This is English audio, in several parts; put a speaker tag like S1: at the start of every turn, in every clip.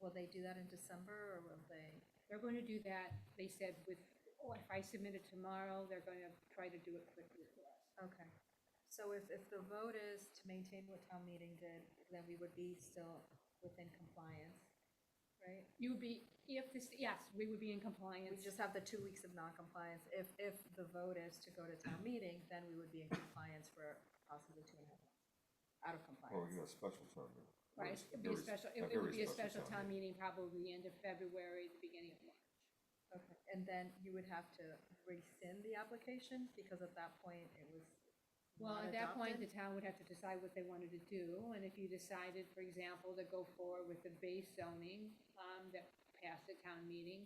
S1: Will they do that in December or will they?
S2: They're going to do that, they said with, oh, if I submit it tomorrow, they're going to try to do it quickly for us.
S1: Okay. So if, if the vote is to maintain what town meeting did, then we would be still within compliance, right?
S2: You would be, if this, yes, we would be in compliance.
S1: We just have the two weeks of non-compliance. If, if the vote is to go to town meeting, then we would be in compliance for possibly two and a half months, out of
S3: Well,
S1: compliance.
S3: we Oh, got a special permit.
S2: Right, it would be a special, it it would be a special town meeting probably the end of February, the beginning of March.
S1: Okay, and then you would have to rescind the application because at that point it was
S2: Well,
S1: not
S2: at that point,
S1: adopted?
S2: the town would have to decide what they wanted to do, and if you decided, for example, to go forward with the base zoning, um, that passed the town meeting,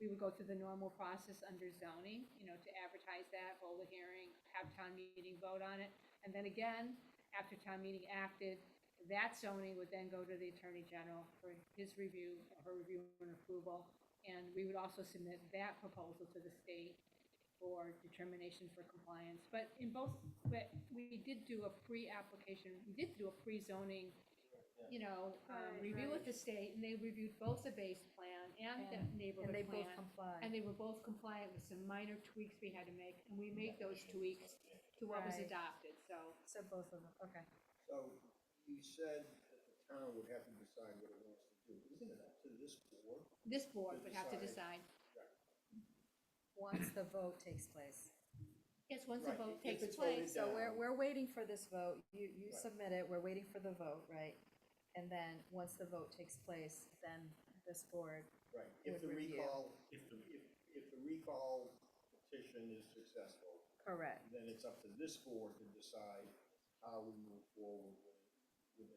S2: we would go through the normal process under zoning, you know, to advertise that, hold a hearing, have town meeting vote on it. And then again, after town meeting acted, that zoning would then go to the attorney general for his review, or her review and approval. And we would also submit that proposal to the state for determination for compliance. But in both, but we did do a pre-application, we did do a pre-zoning, you know, um,
S1: Right,
S2: review
S1: right.
S2: with the state, and they reviewed both the base plan and the
S1: And- And
S2: neighborhood
S1: they both
S2: plan. And
S1: complied.
S2: they were both compliant with some minor tweaks we had to make, and we made those tweaks to what was
S1: Right.
S2: adopted, so.
S1: So both of them, okay.
S4: So you said that the town would have to decide what it wants to do. Isn't it up to this board?
S2: This board would have to
S4: Decide.
S2: decide,
S1: Once the vote takes place.
S2: yes, once the
S4: Right,
S2: vote
S4: if
S2: takes
S4: it's voted
S2: place,
S1: So
S4: down.
S1: we're, we're waiting for this vote. You, you
S4: Right.
S1: submit it, we're waiting for the vote, right? And then, once the vote takes place, then this board,
S4: Right, if
S1: With
S4: the
S1: review.
S4: recall, if the, if, if the recall petition is successful,
S1: correct.
S4: then it's up to this board to decide how we move forward with, with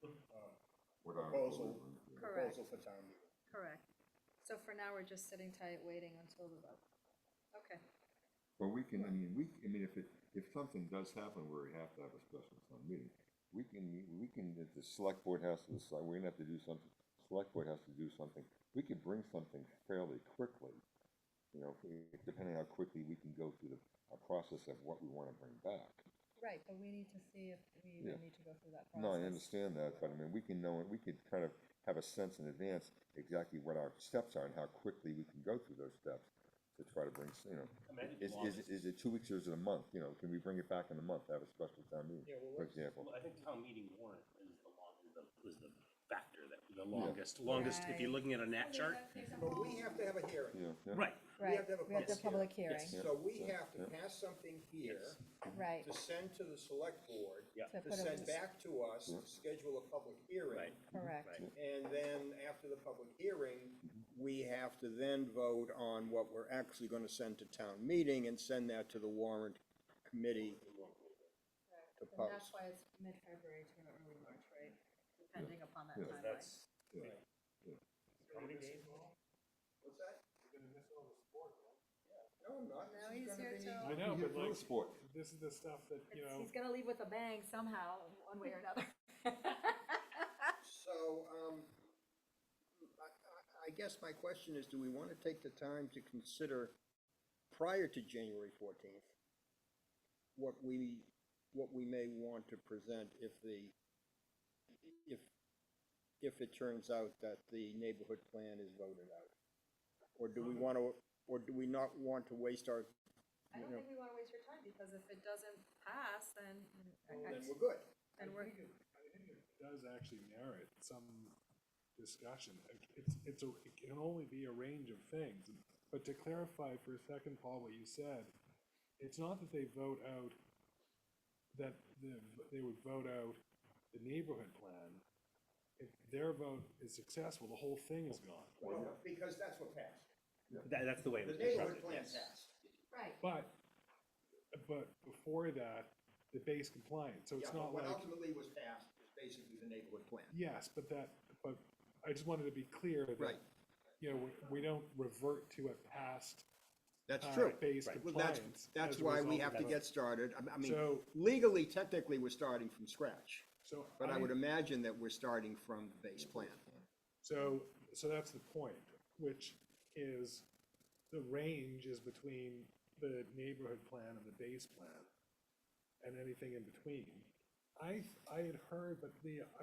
S4: the new um, Proposal. uh,
S1: Correct.
S4: proposal for town meeting.
S1: Correct. So for now, we're just sitting tight, waiting until the vote. Okay,
S3: But we can, I mean, we, I mean, if it, if something does happen where we have to have a special town meeting, we can, we can, if the select board has to decide, we're gonna have to do something, select board has to do something, we could bring something fairly quickly. You know, if we- depending on how quickly we can go through the, a process of what we wanna bring back.
S1: right, but we need to see if we
S3: Yeah.
S1: even need to go through that process.
S3: No, I understand that, but I mean, we can know, we could kind of have a sense in advance exactly what our steps are and how quickly we can go through those steps to try to bring, s- you know. Is, is, is it two weeks or is it a month, you know, can we bring it back in a month, have a special town meeting,
S5: Yeah, well,
S3: for
S5: let's-
S3: example?
S6: Well, I think town meeting warrant is the long, is the, is the factor that, the longest, longest, if you're
S1: Right.
S6: looking at a nat chart.
S4: But we have to have a hearing.
S3: Yeah, yeah.
S6: Right,
S4: We have
S1: Right,
S4: to have a
S1: we have the public
S4: public
S1: hearing,
S6: Yes.
S4: So we
S3: Yeah,
S4: have to
S3: yeah.
S4: pass something here
S1: right.
S4: to send to the select board,
S6: Yeah.
S1: To
S4: to
S1: put a-
S4: send back to us, to schedule a public hearing.
S6: right,
S1: Correct,
S6: right.
S4: And then after the public hearing, we have to then vote on what we're actually gonna send to town meeting and send that to the warrant committee. To
S1: and that's
S4: post.
S1: why it's mid-February to early March, right? Depending upon that
S3: Yeah.
S1: timeline.
S6: That's,
S4: What's that? No, I'm not.
S1: Now
S4: This is
S1: he's
S4: gonna
S1: here
S4: be-
S1: till,
S7: I know,
S3: Here
S7: but
S3: for the
S7: like,
S3: sport.
S7: this is the stuff that, you
S1: it's-
S7: know,
S1: he's gonna leave with a bang somehow, one way or another.
S4: So, um, I, I, I guess my question is, do we wanna take the time to consider prior to January fourteenth? What we, what we may want to present if the, if, if it turns out that the neighborhood plan is voted out? Or do we wanna, or do we not want to waste our,
S1: I don't
S4: Yeah.
S1: think we wanna waste your time, because if it doesn't pass, then,
S4: then we're good.
S1: then
S7: I
S1: we're,
S7: think it, I think it does actually merit some discussion. It- It's, it's, a- it can only be a range of things. But to clarify for a second, Paul, what you said, it's not that they vote out, that the- they would vote out the neighborhood plan. If their vote is successful, the whole thing is gone.
S4: Well, because that's what passed.
S6: that, that's the way
S4: The
S6: it was
S4: neighborhood plan
S6: constructed, yes.
S4: passed.
S1: right.
S7: But, but before that, the base compliance, so
S4: Yeah,
S7: it's
S4: but
S7: not
S4: what
S7: like,
S4: ultimately was passed is basically the neighborhood plan.
S7: yes, but that, but I just wanted to be clear that,
S4: Right.
S7: you know, we- we don't revert to a past
S4: That's
S7: uh,
S4: true.
S7: base
S4: Well, that's,
S7: compliance.
S4: that's
S7: as a
S4: why we
S7: result
S4: have
S7: of
S4: to
S7: that.
S4: get started. I- I mean,
S7: So-
S4: legally, technically, we're starting from scratch.
S7: So
S4: But I would imagine that we're starting from the base plan.
S7: So, so that's the point, which is the range is between the neighborhood plan and the base plan and anything in between. I, I had heard that the,